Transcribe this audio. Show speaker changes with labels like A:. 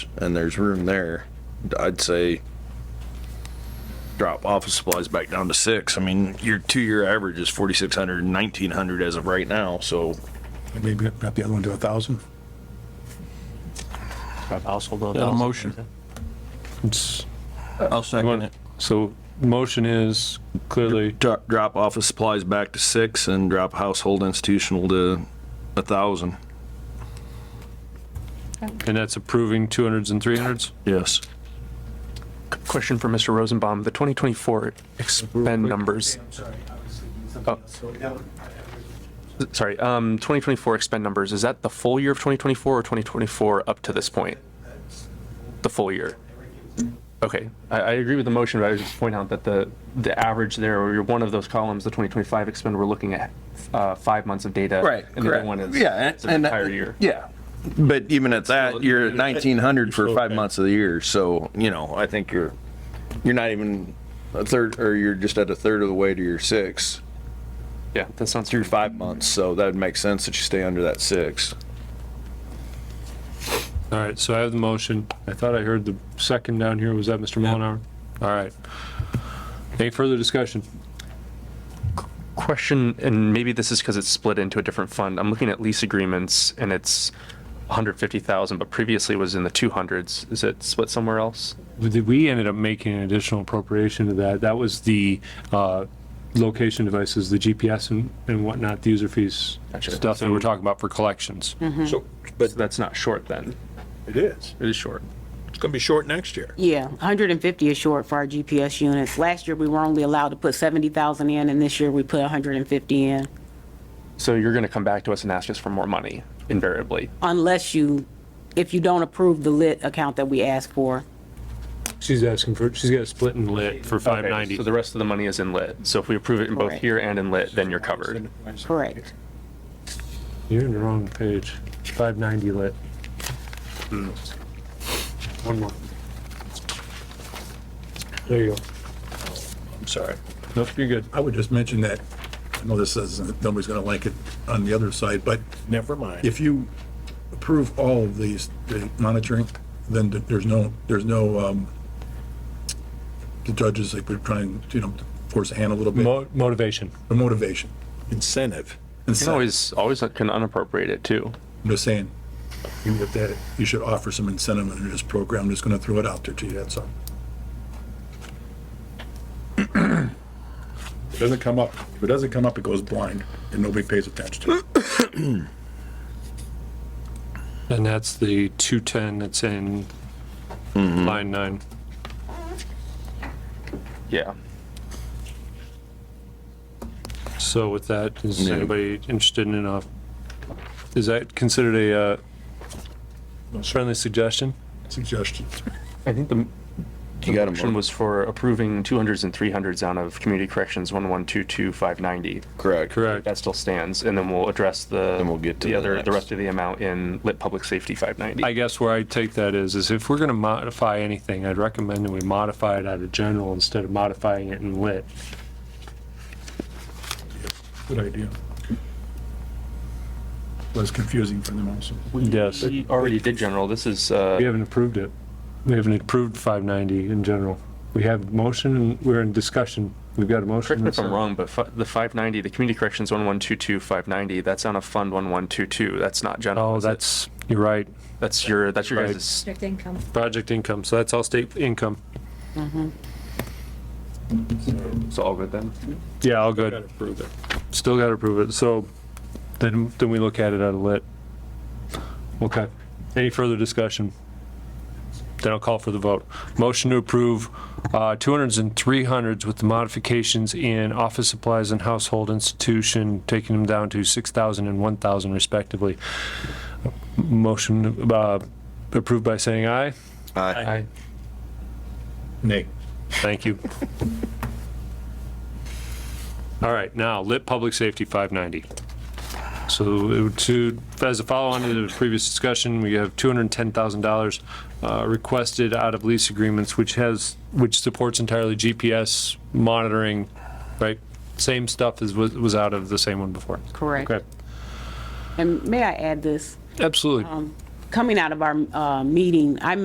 A: and there's room there, I'd say drop office supplies back down to six. I mean, your two-year average is 4,600, 1,900 as of right now, so
B: Maybe wrap the other one to a thousand.
C: Household of
D: Yeah,
C: thousand.
D: motion. It's-
C: I'll second it.
D: So motion is clearly,
A: dro- drop office supplies back to six and drop household institutional to a thousand.
D: and that's approving 200s and 300s?
A: Yes.
E: Question for Mr. Rosenbaum, the 2024 expend numbers. Oh. Sorry, um, 2024 expend numbers, is that the full year of 2024 or 2024 up to this point? The full year? Okay, I, I agree with the motion, but I was just pointing out that the, the average there, or your- one of those columns, the 2025 expend, we're looking at uh, five months of data. And the other one is the
A: uh,
E: entire year.
A: Yeah. But even at that, you're at 1,900 for five months of the year, so, you know, I think you're, you're not even a third, or you're just at a third of the way to your six.
E: Yeah, that sounds.
A: through five months, so that'd make sense that you stay under that six.
D: All right, so I have the motion. I thought I heard the second down here. Was that Mr. Mullenhour? All right. Any further discussion?
E: question, and maybe this is because it's split into a different fund. I'm looking at lease agreements and it's 150,000, but previously was in the 200s. Is it split somewhere else?
D: We ended up making an additional appropriation to that. That was the uh, location devices, the GPS and and whatnot, the user fees
E: Gotcha.
D: stuff that we're talking about for collections.
F: So,
E: So
F: but
E: that's not short then.
F: it is.
E: It is short.
F: It's gonna be short next year.
G: Yeah, 150 is short for our GPS units. Last year, we were only allowed to put 70,000 in, and this year, we put 150 in,
E: So you're going to come back to us and ask us for more money invariably.
G: unless you, if you don't approve the lit account that we asked for.
D: She's asking for, she's got a split and lit for
E: So
D: 590.
E: the rest of the money is in lit. So if we approve it in both
G: Correct.
E: here and in lit, then you're covered.
G: Correct.
D: You're in the wrong page. 590 lit. One more. There you go.
F: I'm sorry.
D: Nope, you're good.
B: I would just mention that, I know this isn't, nobody's gonna like it on the other side, but
F: Never mind.
B: if you approve all of these, the monitoring, then th- there's no, there's no, um, the judges, like, we're trying, you know, force a hand a little bit,
D: Mo- Motivation.
B: for motivation.
F: Incentive.
B: And
E: You can always, always can unappropriate it too.
B: I'm just saying, you get that, you should offer some incentive in this program, I'm just gonna throw it out there to you, that's all. If it doesn't come up, if it doesn't come up, it goes blind, and nobody pays attention to it.
D: And that's the 210 that's in line nine.
E: Yeah.
D: So with that, is
A: Yeah.
D: anybody interested in enough? Is that considered a uh, friendly suggestion?
B: Suggestion.
E: I think the
A: You got 'em,
E: motion
A: Mark.
E: was for approving 200s and 300s out of Community Corrections 1122590.
A: Correct.
D: Correct.
E: That still stands, and then we'll address the.
A: Then we'll get to
E: The
A: the
E: other, the
A: next.
E: rest of the amount in lit public safety 590.
D: I guess where I take that is, is if we're gonna modify anything, I'd recommend that we modify it out of general instead of modifying it in lit.
B: Good idea. Was confusing for them also.
D: Yes.
E: We already did general, this is, uh,
D: We haven't approved it. We haven't approved 590 in general. We have motion and we're in discussion. We've got a motion.
E: correct me if
D: and
E: I'm
D: a second.
E: wrong, but fi- the 590, the Community Corrections 1122590, that's on a fund 1122, that's not general.
D: Oh,
E: is it?
D: that's, you're right.
A: Oh.
E: That's your, that's your
D: Right.
E: guys'
H: Restricted income.
D: Project income, so that's all state income.
E: So all good then?
D: Yeah, all good. Approve it. Still gotta approve it, so then, then we look at it out of lit. Okay, any further discussion? Then I'll call for the vote. Motion to approve, uh, 200s and 300s with the modifications in office supplies and household institution, taking them down to 6,000 and 1,000 respectively. Motion, uh, approved by saying aye?
E: Aye.
B: Nay.
D: Thank you. All right, now, lit public safety 590. So it would- to, as a follow-on to the previous discussion, we have $210,000 uh, requested out of lease agreements, which has, which supports entirely GPS monitoring, right? Same stuff as was was out of the same one before.
G: Correct.
D: Okay,
G: And may I add this? Um,
D: absolutely.
G: Coming out of our uh, meeting, I